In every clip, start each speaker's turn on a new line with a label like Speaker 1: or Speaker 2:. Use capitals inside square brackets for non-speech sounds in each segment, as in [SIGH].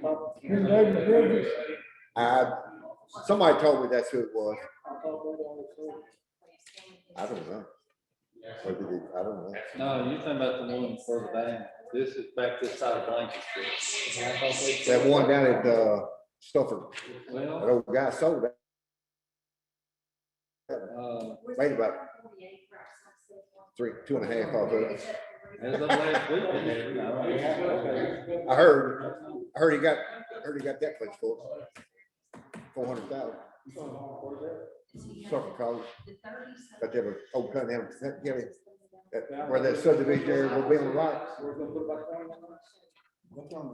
Speaker 1: public
Speaker 2: His
Speaker 1: hearing.
Speaker 2: name is Bridges.
Speaker 3: I, somebody told me that's who it was. I
Speaker 4: Please stand.
Speaker 3: I don't know. Or did it- I don't know.
Speaker 5: No, you're talking about the one further down. This is back this side of Blanket Street.
Speaker 3: That one down at, uh, Stafford, that
Speaker 5: Well,
Speaker 3: old guy sold that.
Speaker 5: uh,
Speaker 3: Wait about three, two and a half of it.
Speaker 5: as of last week, I mean, I don't-
Speaker 3: I heard, I heard he got, I heard he got that place for four hundred thousand. Stafford College, but they were, old town, they were, yeah, that- where that subdivision area will be on the right.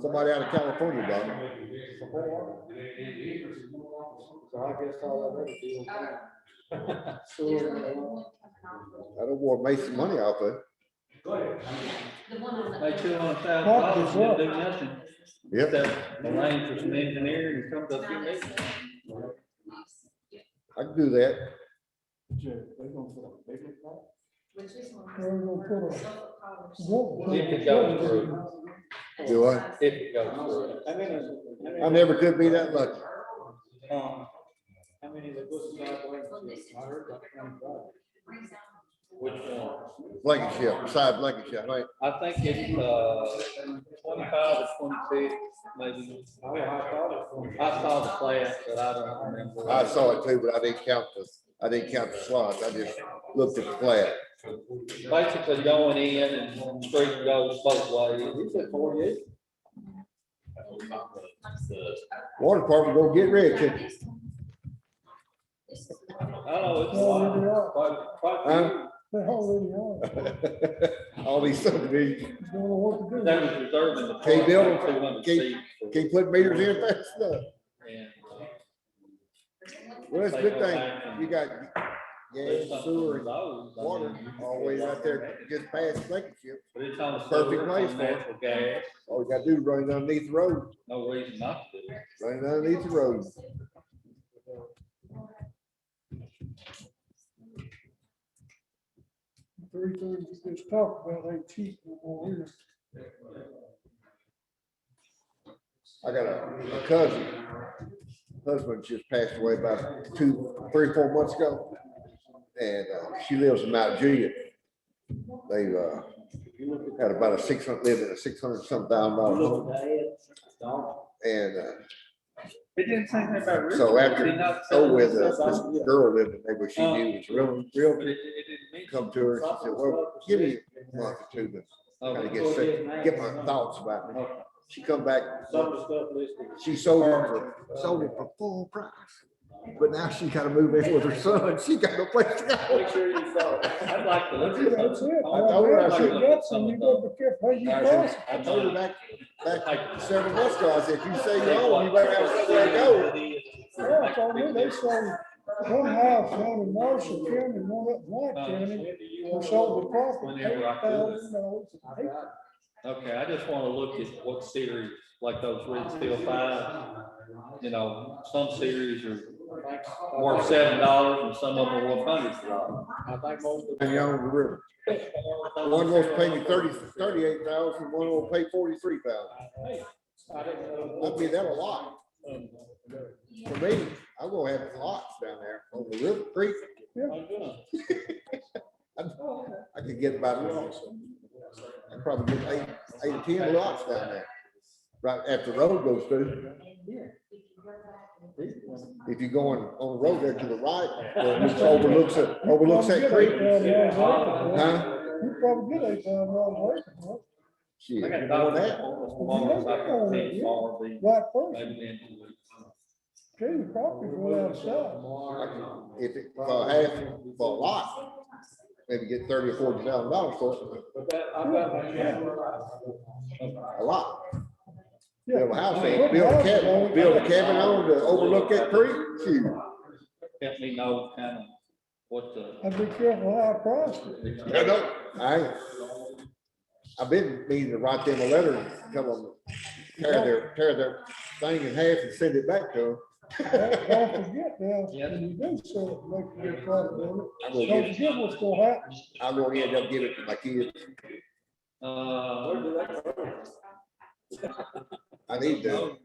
Speaker 3: Somebody out of California bought it.
Speaker 2: So I guess all I've ever deal with.
Speaker 4: Oh. There's
Speaker 2: Sewer,
Speaker 4: only
Speaker 2: uh,
Speaker 4: one coming off.
Speaker 3: I don't want to make some money off of it.
Speaker 4: The one on the-
Speaker 5: Like two hundred thousand dollars, you do nothing.
Speaker 3: Yep,
Speaker 5: Except the lane for some engineering and comes up here. maybe.
Speaker 3: I can do that.
Speaker 2: Jerry, they gonna put a bigger plant?
Speaker 4: Which is one?
Speaker 2: They're gonna put a-
Speaker 4: Solar powers.
Speaker 2: Won't put
Speaker 5: If
Speaker 2: a-
Speaker 5: it goes through.
Speaker 3: Do I?
Speaker 5: If it goes through.
Speaker 2: How many is it?
Speaker 3: I never could be that lucky.
Speaker 2: Um, How many of the buses are
Speaker 4: Well, this is-
Speaker 2: I heard about twenty-five.
Speaker 4: Brings down-
Speaker 5: Which
Speaker 4: uh,
Speaker 5: one?
Speaker 3: Blankenship, beside Blankenship, right?
Speaker 5: I think it's, uh, twenty-five to twenty-six, maybe.
Speaker 2: I mean, I thought it was.
Speaker 5: I saw the class, but I don't remember.
Speaker 3: I saw it too, but I didn't count the, I didn't count the slots. I just looked at the flat.
Speaker 5: Basically going in and the street goes both ways.
Speaker 2: He said forty-eight.
Speaker 3: Water department gonna get rich. and-
Speaker 4: This is the one.
Speaker 5: I know Oh, it's a lot. Quite- quite
Speaker 3: Huh?
Speaker 6: They already are.
Speaker 3: All these [LAUGHS] subdivisions,
Speaker 6: Don't know what
Speaker 5: a
Speaker 6: to
Speaker 5: few.
Speaker 6: do.
Speaker 5: They was reserving the.
Speaker 3: Can't build them.
Speaker 5: 200
Speaker 3: Can't-
Speaker 5: seats for-
Speaker 3: can't put meters in fast enough.
Speaker 5: and, uh,
Speaker 3: [LAUGHS] Well, that's a
Speaker 5: they
Speaker 3: good
Speaker 5: go
Speaker 3: thing.
Speaker 5: back and
Speaker 3: You got
Speaker 5: do
Speaker 3: gas,
Speaker 5: something
Speaker 3: sewer,
Speaker 5: with
Speaker 3: and
Speaker 5: those. I
Speaker 3: water
Speaker 5: mean,
Speaker 3: always out there just past Blankenship.
Speaker 5: But it's on the
Speaker 3: Perfect
Speaker 5: sewer,
Speaker 3: place
Speaker 5: it's on
Speaker 3: for it.
Speaker 5: natural gas,
Speaker 3: All you gotta do is run it underneath the road,
Speaker 5: no reason not to. do it.
Speaker 3: run it underneath the road.
Speaker 6: Three things we just talked about, ain't cheap no more either.
Speaker 3: I got a a cousin, husband just passed away about two, three, four months ago. And uh, she lives in Mount Juliet. They uh, had about a six hundred, lived in a six hundred some thousand dollar home. And uh,
Speaker 5: It didn't say anything about. real
Speaker 3: so
Speaker 5: estate.
Speaker 3: after,
Speaker 5: Did not say
Speaker 3: oh, with
Speaker 5: anything
Speaker 3: this
Speaker 5: about-
Speaker 3: this girl lived in there, but she knew was real, real.
Speaker 5: But it- it didn't mention-
Speaker 3: Come to her, she said, well, give me a month or two to
Speaker 5: Oh,
Speaker 3: kind of get, set- get my thoughts about me.
Speaker 5: okay.
Speaker 3: She come back,
Speaker 2: Some of the stuff listed.
Speaker 3: She sold it for, sold it for full price. But now she gotta move in with her son. [LAUGHS] She got no place to go.
Speaker 5: Make sure you saw it. I'd like to look at
Speaker 6: That's it.
Speaker 5: it.
Speaker 3: I told her, I
Speaker 6: If
Speaker 3: said-
Speaker 6: you got some, you gotta be careful how you pass.
Speaker 3: I told her back, back several months ago, I said, if you say you own, you better have somewhere to go.
Speaker 6: Yeah, I told them, they sold one house down in Marshall County, one up in White
Speaker 5: Um,
Speaker 6: County, and sold the property, eight
Speaker 5: Whenever I could.
Speaker 6: thousand dollars.
Speaker 2: I got
Speaker 5: Okay, I just wanna look at what series, like those Red Steel Five, you know, some series are worth seven dollars and some of them are worth hundreds of dollars.
Speaker 2: I think most of.
Speaker 3: And you own the river. One wants to pay me thirty, thirty-eight thousand, one will pay forty-three thousand.
Speaker 2: I didn't know.
Speaker 3: I mean, that a lot. For me, I will have lots down there on the river creek. I could get about, I probably get eight, eight or ten lots down there. Right after the road goes through. If you're going on the road there to the right, where it overlooks it, overlooks that creek. Huh?
Speaker 6: You probably get eight thousand dollars, acre, huh?
Speaker 3: Shit,
Speaker 5: I got
Speaker 3: you know
Speaker 5: dollars
Speaker 3: that?
Speaker 5: tomorrow, so I can see tomorrow, be-
Speaker 6: right first,
Speaker 5: maybe in two weeks.
Speaker 6: gee, the property's way outside.
Speaker 3: If it, for half, for a lot, maybe get thirty or forty thousand dollars for it,
Speaker 2: But that, I bet.
Speaker 3: a lot.
Speaker 6: Yeah.
Speaker 3: Build a house, there, build a cabin, build a cabin on to overlook that creek, shoot.
Speaker 5: Help me know kind of what the
Speaker 6: And be careful how I price it.
Speaker 3: I know, I, I've been meaning to write them a letter, and tell them, tear their, tear their thing in half and send it back [LAUGHS] to
Speaker 6: Don't
Speaker 3: them.
Speaker 6: don't forget now, when you do sell it, make a good profit on
Speaker 3: I'm
Speaker 6: it.
Speaker 3: gonna
Speaker 6: Don't
Speaker 3: get,
Speaker 6: forget what's gonna happen.
Speaker 3: I'm gonna end up giving it to my kids,
Speaker 5: Uh,
Speaker 3: I need to.